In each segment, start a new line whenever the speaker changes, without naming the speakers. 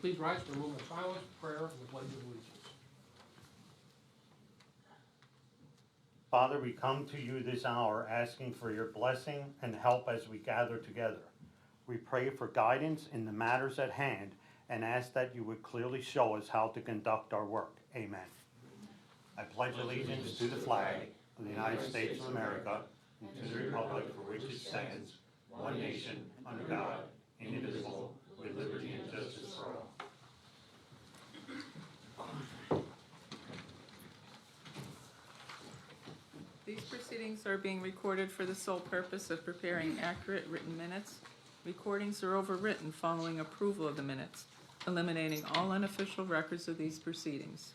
Please rise for a moment of silence, prayer, and the pledge of allegiance.
Father, we come to you this hour asking for your blessing and help as we gather together. We pray for guidance in the matters at hand and ask that you would clearly show us how to conduct our work. Amen. I pledge allegiance to the flag of the United States of America and to the republic for which it stands, one nation, under God, indivisible, with liberty and justice for all.
These proceedings are being recorded for the sole purpose of preparing accurate written minutes. Recordings are overwritten following approval of the minutes, eliminating all unofficial records of these proceedings.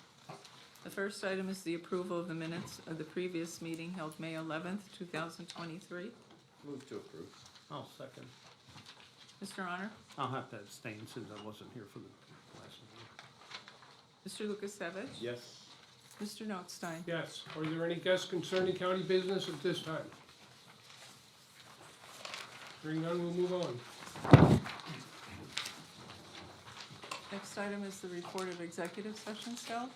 The first item is the approval of the minutes of the previous meeting held May eleventh, two thousand twenty-three.
Move to approve.
I'll second.
Mr. Honor?
I'll have to abstain since I wasn't here for the last one.
Mr. Lukasevich?
Yes.
Mr. Notstein?
Yes, are there any guests concerning county business at this time? Hearing none, we'll move on.
Next item is the report of executive sessions held.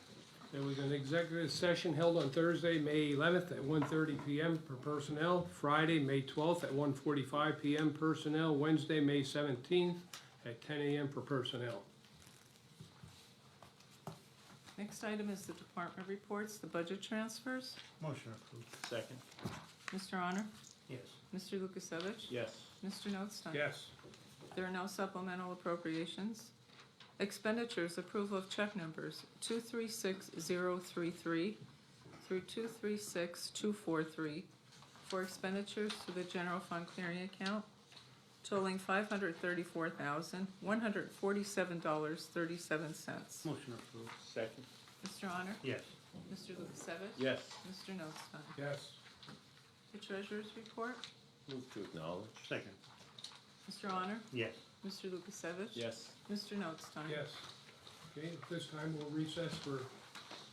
There was an executive session held on Thursday, May eleventh at 1:30 PM per personnel, Friday, May twelfth at 1:45 PM personnel, Wednesday, May seventeenth at ten AM for personnel.
Next item is the department reports, the budget transfers.
Motion approved.
Second.
Mr. Honor?
Yes.
Mr. Lukasevich?
Yes.
Mr. Notstein?
Yes.
There are no supplemental appropriations. Expenditures, approval of check numbers 236033 through 236243 for expenditures to the general fund clearing account totaling $534,147.37.
Motion approved.
Second.
Mr. Honor?
Yes.
Mr. Lukasevich?
Yes.
Mr. Notstein?
Yes.
The treasurer's report?
Move to acknowledge.
Second.
Mr. Honor?
Yes.
Mr. Lukasevich?
Yes.
Mr. Notstein?
Yes. Okay, at this time, we'll recess for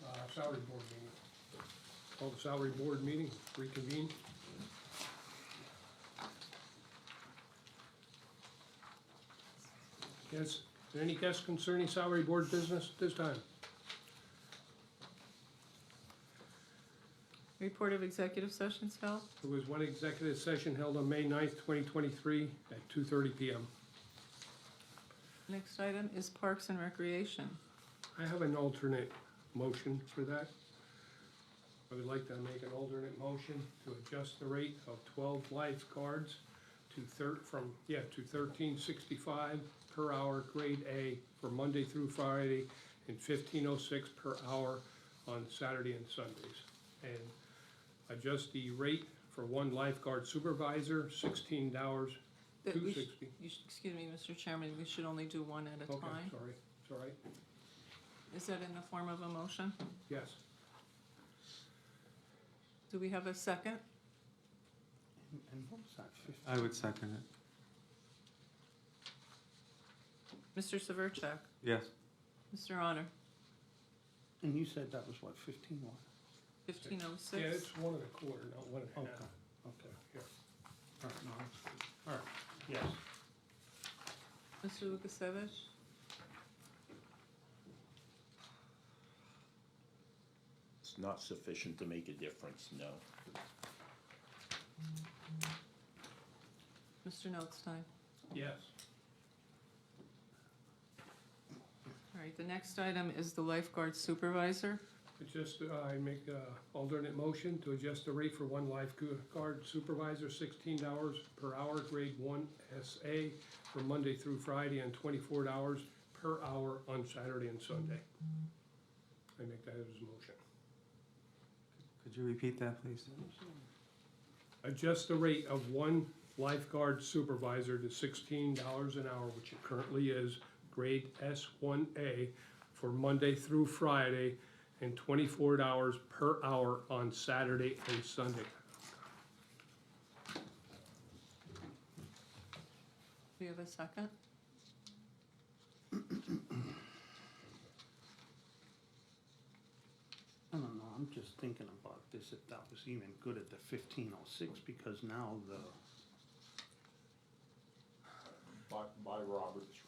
uh, salary board meeting. Call the salary board meeting, reconvene. Yes, is there any guests concerning salary board business at this time?
Report of executive sessions held.
There was one executive session held on May 9th, twenty twenty-three at two thirty PM.
Next item is Parks and Recreation.
I have an alternate motion for that. I would like to make an alternate motion to adjust the rate of twelve lifeguards to thir- from, yeah, to thirteen sixty-five per hour, grade A, for Monday through Friday, and fifteen oh six per hour on Saturday and Sundays. And adjust the rate for one lifeguard supervisor, sixteen dollars,
That
two
we sh-
sixty.
you sh- Excuse me, Mr. Chairman, we should only do one at a
Okay,
time.
sorry, it's all right,
Is that in the form of a motion?
yes.
Do we have a second?
And what was that? Fif-
I would second it.
Mr. Severcek?
Yes.
Mr. Honor?
And you said that was what, fifteen one?
Fifteen oh
Yeah,
six?
it's one and a quarter, not one and
Okay,
a half.
okay.
Here.
All right, no, that's good. All right, yes.
Mr. Lukasevich?
It's not sufficient to make a difference, no.
Mr. Notstein?
Yes.
All right, the next item is the lifeguard supervisor.
It's Just, uh, I make a alternate motion to adjust the rate for one lifeguard supervisor, sixteen dollars per hour, grade one SA, for Monday through Friday, and twenty-four dollars per hour on Saturday and Sunday. I make that as a motion.
Could you repeat that, please?
Adjust the rate of one lifeguard supervisor to sixteen dollars an hour, which it currently is, grade S one A, for Monday through Friday, and twenty-four dollars per hour on Saturday and Sunday.
We have a second?
I don't know, I'm just thinking about this, if that was even good at the fifteen oh six, because now the,
By, by Robert's